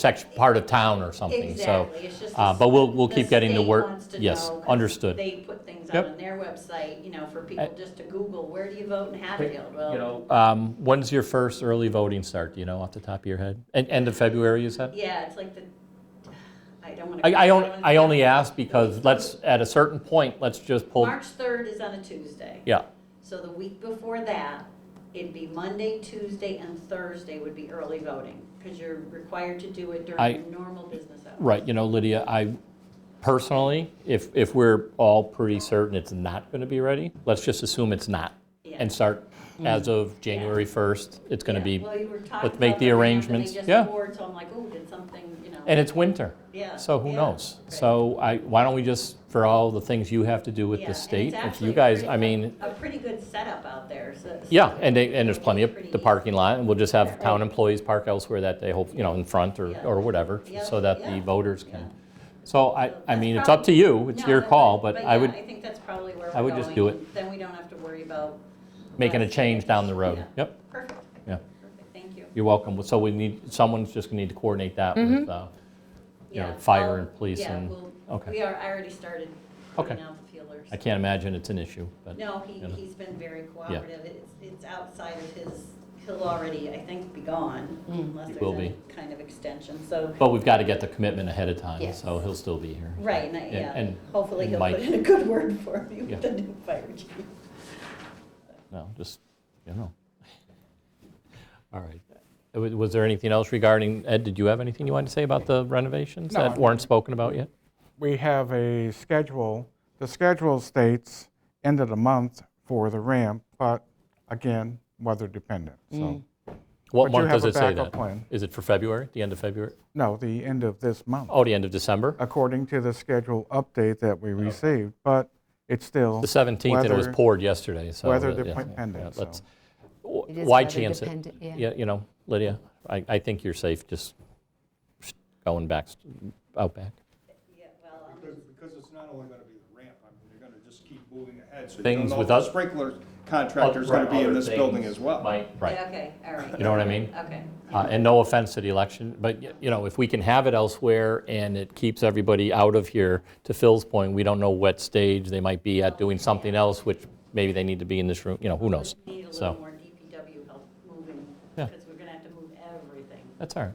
section, part of town or something, so. Exactly, it's just. uh, the- But we'll, we'll keep getting to state work. wants to Yes, know 'cause understood. They put things out Yep. on their website, you know, for people just to Google, where do you vote in Hatfield? You Well, know, Um, When's your first early voting start, do you know off the top of your head? En- End of February, you uh, said? yeah, it's like the, I don't want to. I, I only, I only ask because let's, at a certain point, let's just pull, March 3rd is on a Tuesday. yeah, So the week before that, it'd be Monday, Tuesday, and Thursday would be early voting, because you're required to do it I- during your normal business hours. right, you know, Lydia, I personally, if, if we're all pretty certain it's not going to be ready, let's just assume it's not. Yeah. And start as of January 1st, it's going to Yeah, be, well, you were talking let's make about the ramp, and arrangements. They just Yeah. poured, so I'm like, ooh, did something, you know. and it's winter. Yeah, So who yeah, knows? right. So I, why don't we just, for all the things you have to do with Yeah, the and it's state, if actually you a guys, pretty- I mean, A pretty good setup out there, so. so yeah, and they, and there's plenty of pretty the easy. parking lot, and we'll just have Right. town employees park elsewhere that they hope, you know, in front or, Yeah. or whatever, Yeah, so that the yeah, voters yeah. can. So I, So I that's mean, it's up to probably- you, it's No, your that's call, right. but I yeah, would I think that's probably where we're I would just going, do it. and Then we don't have to worry about. making a us. change down the road. Yeah. Yep, Perfect. Yeah. Perfect, thank you. you're welcome. So we need, someone's just gonna need to coordinate that with, Mm-hmm. uh, you know, Yeah, fire I'll- and police yeah, and- we'll- okay. We are, I already started Okay. putting out the feelers. I can't imagine it's an issue, but. No, he, you know. he's been very cooperative. It's, it's outside of his, he'll already, I think, be gone unless Mm. He there's will any be. kind of extension, so. But we've got to get the commitment ahead of time, Yes. so he'll still be here. Right, and I- And- yeah, and hopefully he'll Mike. put in a good word for me Yeah. with the new fire chief. No, just, you know. All right. Uh, wa- Was there anything else regarding, Ed, did you have anything you wanted to say about the renovations No, I that mean- weren't spoken about yet? we have a schedule. The schedule states end of the month for the ramp, but again, weather dependent. So, What But you month have does a it say that? backup plan. Is it for February, the end of February? no, the end of this month, Oh, the end of December? according to the schedule update that we received, but it's still. The 17th, and it was weather- poured yesterday, so. uh, weather yeah, yeah, dependent, let's- so. w- It is Why weather chance it? dependent, yeah. You know, Lydia, I I think you're safe just going back, out back. Yeah, well, um, Because, because it's not only gonna be the ramp, I mean, you're gonna just keep moving ahead. so you Things don't know with if the us- Sprinkler contractor's gonna be in this building as well. Right, yeah, right. okay, all right. You know what I mean? Okay. Uh, And no offense to the election, but, y- you know, if we can have it elsewhere and it keeps everybody out of here, to Phil's point, we don't know what stage they might be at doing something else, which maybe they need to be in this room, you know, who knows? We Need a So- little more DPW help moving, Yeah. because we're gonna have to move everything. That's all right.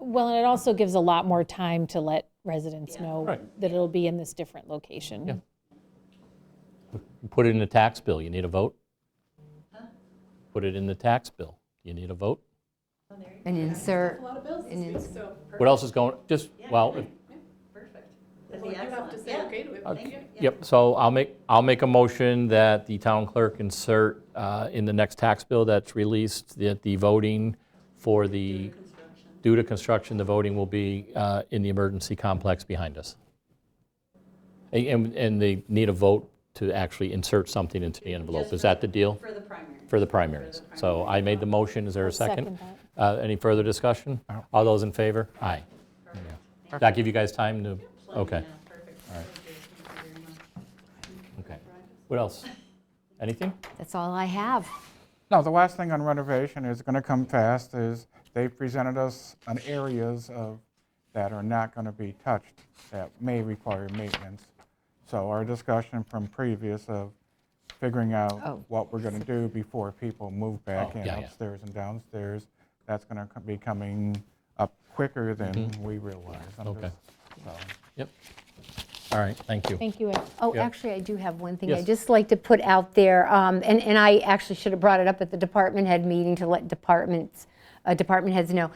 Well, and it also gives a lot more time to let residents Yeah. know Right. that it'll be in this different location. Yeah. Put it in the tax bill, you need a vote? Put it in the tax bill, you need a vote? Oh, there you go. And insert, A lot of bills this And week, it's- so. What else is going, just, Yeah, well, yeah, if- yeah, Perfect. That'd Well, be you have to excellent, say yeah. okay to it, Thank you. Yeah. Yep, so I'll make, I'll make a motion that the town clerk insert uh, in the next tax bill that's released, that the voting for the, Construction. due to construction, the voting will be uh, in the emergency complex behind us. A- And, and they need a vote to actually insert something into the envelope. Just Is for- that the deal? For the primary. For the primaries. So I made the motion, is there a I'll second? second Uh, Any further discussion? All those in favor? Aye. Did that give you guys time to, Plenty, okay, yeah, Perfect. Thank you very much. okay. What else? Anything? that's all I have. No, the last thing on renovation is going to come fast, is they presented us on areas of, that are not going to be touched, that may require maintenance. So our discussion from previous of figuring Oh. out what we're going to do before people move back Oh, in yeah, yeah. upstairs and downstairs, that's going to be coming up quicker than we realize. I'm Mm-hmm. Okay. just- so. Yep. All right, thank you. Thank you, Ed. Oh, Yeah. actually, I do have one thing Yes. I'd just like to put out there, um, and and I actually should have brought it up at the department head meeting to let departments, uh, department heads know.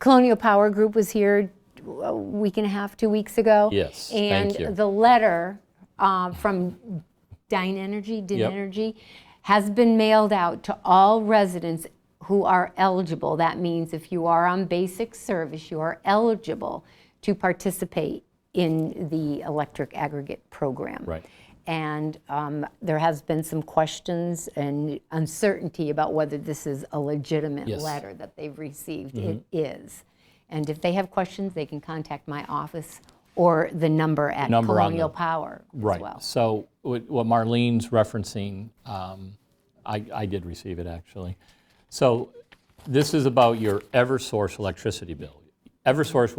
Colonial Power Group was here a week and a half, two weeks ago. Yes, thank you. And the letter um, from Dine Energy, Din Yep. Energy, has been mailed out to all residents who are eligible. That means if you are on basic service, you are eligible to participate in the electric aggregate program. Right. And um, there has been some questions and uncertainty about whether this is a legitimate Yes. Mm-hmm. letter that they've received. It is. And if they have questions, they can contact my office or the number at Number on Colonial the- Power as well. Right, so what what Marlene's referencing, um, I I did receive it, actually. So this is about your ever source electricity bill. Eversource